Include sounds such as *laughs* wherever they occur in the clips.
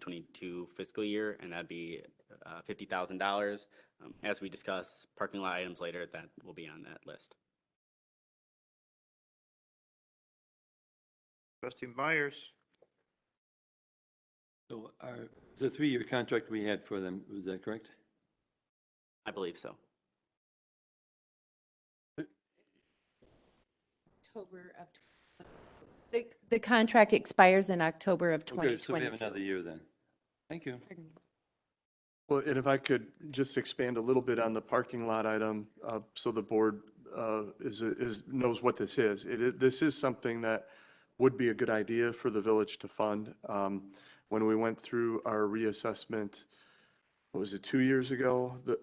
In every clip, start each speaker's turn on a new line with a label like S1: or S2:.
S1: 2022 fiscal year, and that'd be uh, $50,000. Um, As we discuss parking lot items later, that will be on that list.
S2: Trustee Myers,
S3: So our, the three-year contract we had for them, was that correct?
S1: I believe so.
S4: October of, tw- the, the contract expires in October of
S3: Okay, So we have
S4: 2022.
S3: another year then. Thank you.
S4: Pardon me.
S5: Well, and if I could just expand a little bit on the parking lot item, uh, so the board, uh, is, is, knows what this is. It, is- this is something that would be a good idea for the village to fund. Um, when we went through our reassessment, what was it, two years ago? The,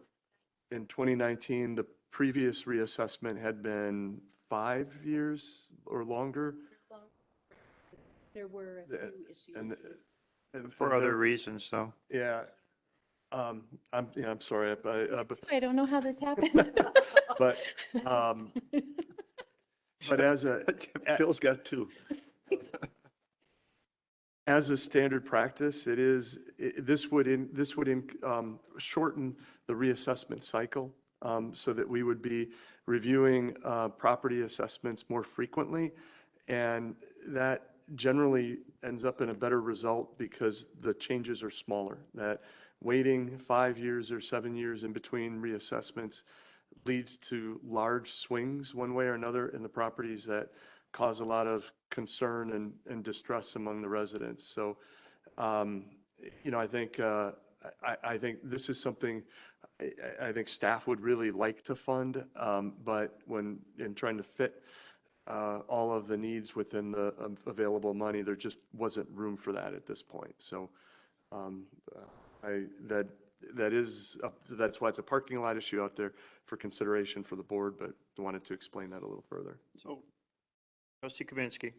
S5: in 2019, the previous reassessment had been five years or longer.
S4: There were a
S5: The-
S4: few issues.
S5: And, and
S2: for other reasons,
S5: reasons.
S2: though.
S5: Yeah. Um, I'm, yeah, I'm sorry, I- I, I- uh, but
S4: I don't know how this happened. *laughs*
S5: But,
S2: *laughs*
S5: um, But as a,
S2: Phil's got two.
S5: *laughs* as a standard practice, it is, i- this would, in this would in- um, shorten the reassessment cycle um, so that we would be reviewing uh, property assessments more frequently. And that generally ends up in a better result because the changes are smaller. That waiting five years or seven years in between reassessments leads to large swings one way or another in the properties that cause a lot of concern and, and distress among the residents. So, um, you know, I think, uh, I, I- I think this is something I, I I think staff would really like to fund, um, but when, in trying to fit, uh, all of the needs within the um, available money, there just wasn't room for that at this point. So, um, uh, I, that, that is, up- that's why it's a parking lot issue out there for consideration for the board, but wanted to explain that a little further.
S2: So, trustee Kaminsky,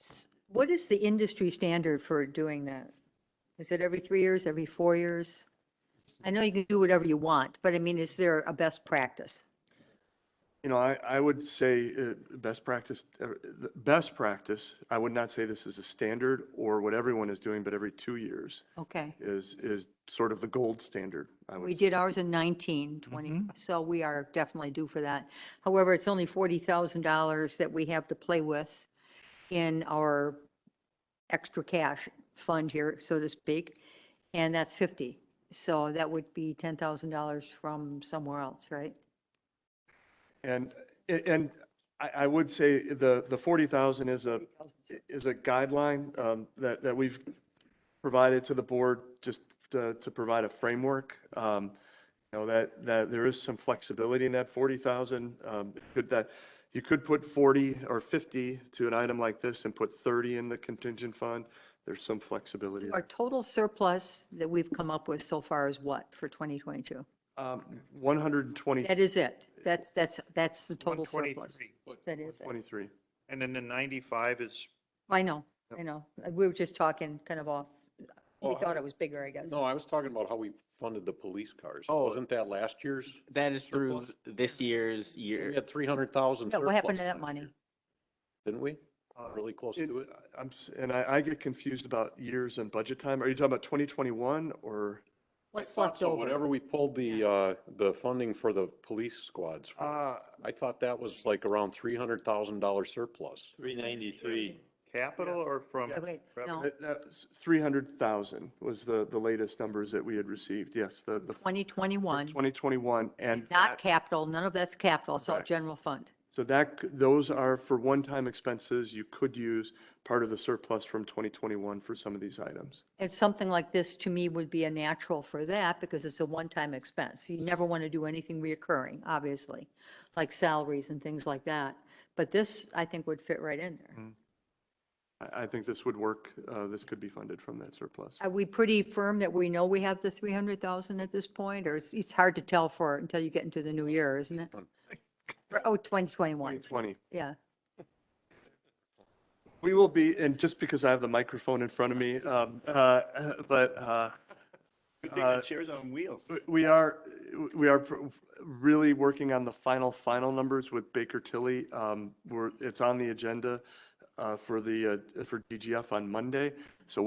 S6: S- What is the industry standard for doing that? Is it every three years, every four years? I know you can do whatever you want, but I mean, is there a best practice?
S5: You know, I, I would say uh, best practice, uh, the best practice, I would not say this is a standard or what everyone is doing, but every two years
S6: Okay.
S5: is, is sort of the gold standard, I would
S6: We
S5: say. Mm-hmm.
S6: did ours in 19, 20, so we are definitely due for that. However, it's only $40,000 that we have to play with in our extra cash fund here, so to speak, and that's 50. So that would be $10,000 from somewhere else, right?
S5: And, and I, I would say the, the 40,000 is a, is a guideline um, that, that we've provided to the board just to, to provide a framework. Um, You know, that, that there is some flexibility in that 40,000. um, Could that, you could put 40 or 50 to an item like this and put 30 in the contingent fund. There's some flexibility.
S6: Our total surplus that we've come up with so far is what for 2022?
S5: Um, 120,
S6: That is it. That's, that's, that's the total surplus.
S2: 123.
S6: That is it.
S5: 23.
S2: And then the 95 is,
S6: I know, I know. Uh, We were just talking kind of off. We thought it was bigger, I guess.
S7: No, I was talking about how we funded the police cars.
S5: Oh.
S7: Wasn't that last year's?
S1: That is through
S7: Surplus?
S1: this year's year.
S7: We had three hundred thousand.
S6: Yeah, what happened to that money?
S7: Didn't we?
S5: Uh,
S7: Really close
S5: It-
S7: to it?
S5: I'm, s- and I, I get confused about years and budget time. Are you talking about 2021 or?
S6: What's
S7: I thought
S6: left
S7: so,
S6: over?
S7: Whatever we pulled the, uh, the funding for the police squads, from.
S5: Uh,
S7: I thought that was like around three hundred thousand dollar surplus.
S3: Three ninety-three.
S2: capital or from?
S6: Oh, Wait, no,
S5: Uh, That- That's 300,000 was the, the latest numbers that we had received, yes, the, the
S6: 2021,
S5: 2021. And
S6: not
S5: that-
S6: capital, none of that's capital, it's all
S5: Correct.
S6: general fund.
S5: so that, c- those are for one-time expenses. You could use part of the surplus from 2021 for some of these items.
S6: And something like this to me would be a natural for that because it's a one-time expense. You never want to do anything reoccurring, obviously, like salaries and things like that. But this, I think, would fit right in there.
S5: I, I think this would work, uh, this could be funded from that surplus.
S6: Are we pretty firm that we know we have the 300,000 at this point? Or it's, it's hard to tell for, until you get into the new year, isn't it? Or- Oh, 2021,
S5: 2020.
S6: yeah.
S5: We will be, and just because I have the microphone in front of me, um, uh, but, uh, uh,
S2: Chairs on wheels.
S5: We are, we are pr- really working on the final, final numbers with Baker Tilly. Um, We're, it's on the agenda uh, for the, uh, for DGF on Monday. So we're